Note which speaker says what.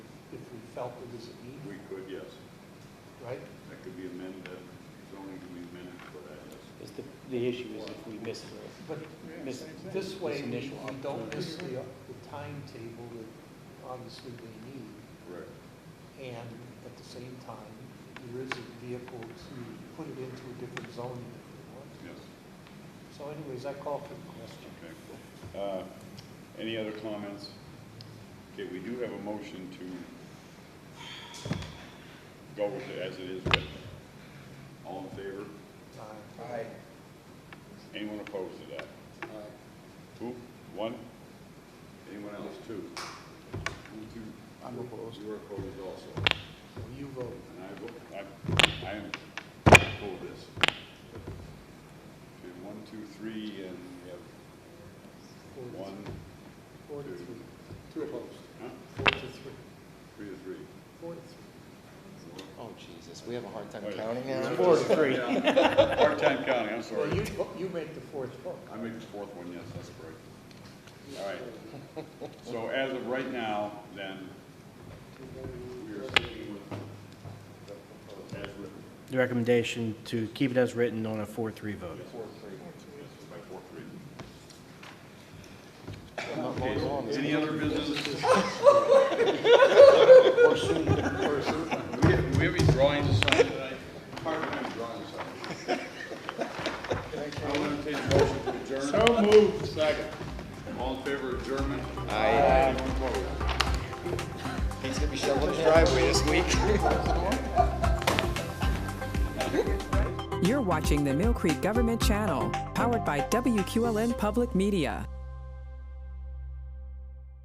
Speaker 1: felt it was a need,
Speaker 2: We could, yes.
Speaker 1: right?
Speaker 2: That could be amended, that zoning could be amended for that, yes.
Speaker 3: Is the, the issue is if we miss the,
Speaker 1: But
Speaker 3: miss
Speaker 1: this
Speaker 3: This
Speaker 1: way, we
Speaker 3: initial
Speaker 1: we don't miss the, the timetable that obviously they need.
Speaker 2: Correct.
Speaker 1: And at the same time, there is a vehicle to put it into a different zone if you want.
Speaker 2: Yes,
Speaker 1: So anyways, I call for the question.
Speaker 2: okay. Uh, Any other comments? Okay, we do have a motion to go with it as it is written. All in favor?
Speaker 1: Uh,
Speaker 4: Aye.
Speaker 2: Anyone opposed to that?
Speaker 4: Aye.
Speaker 2: Who? One? Anyone else? Two? You two?
Speaker 3: I'm opposed.
Speaker 2: You're opposed also.
Speaker 1: So you vote.
Speaker 2: And I vote, I, I am for this. Okay, one, two, three, and we have
Speaker 1: Four to
Speaker 2: one,
Speaker 1: three. Four to
Speaker 2: two.
Speaker 1: three.
Speaker 4: Two opposed.
Speaker 2: huh?
Speaker 1: Four to three.
Speaker 2: Three to three.
Speaker 1: Four to three.
Speaker 4: Oh, Jesus, we have a hard time
Speaker 2: Wait.
Speaker 4: counting
Speaker 2: Yeah.
Speaker 4: now.
Speaker 3: Four to three.
Speaker 2: Yeah. Part-time counting, I'm
Speaker 1: Well, you,
Speaker 2: sorry.
Speaker 1: vo- you make the fourth vote.
Speaker 2: I made the fourth one, yes, that's correct. All right. So as of right now, then, we are sticking with the as written.
Speaker 5: The recommendation to keep it as written on a 4-3 vote.
Speaker 2: Yes, by four, three. Okay, any other business? Do we have, do we have any drawings assigned tonight? Hard to have drawings assigned. I'll entertain a motion to adjourn. So moved. Second. All in favor of adjournment?
Speaker 4: Aye.
Speaker 2: Anyone opposed?
Speaker 4: He's gonna be shoveling his driveway this week.
Speaker 6: You're watching the Mill Creek Government Channel, powered by WQLN Public Media.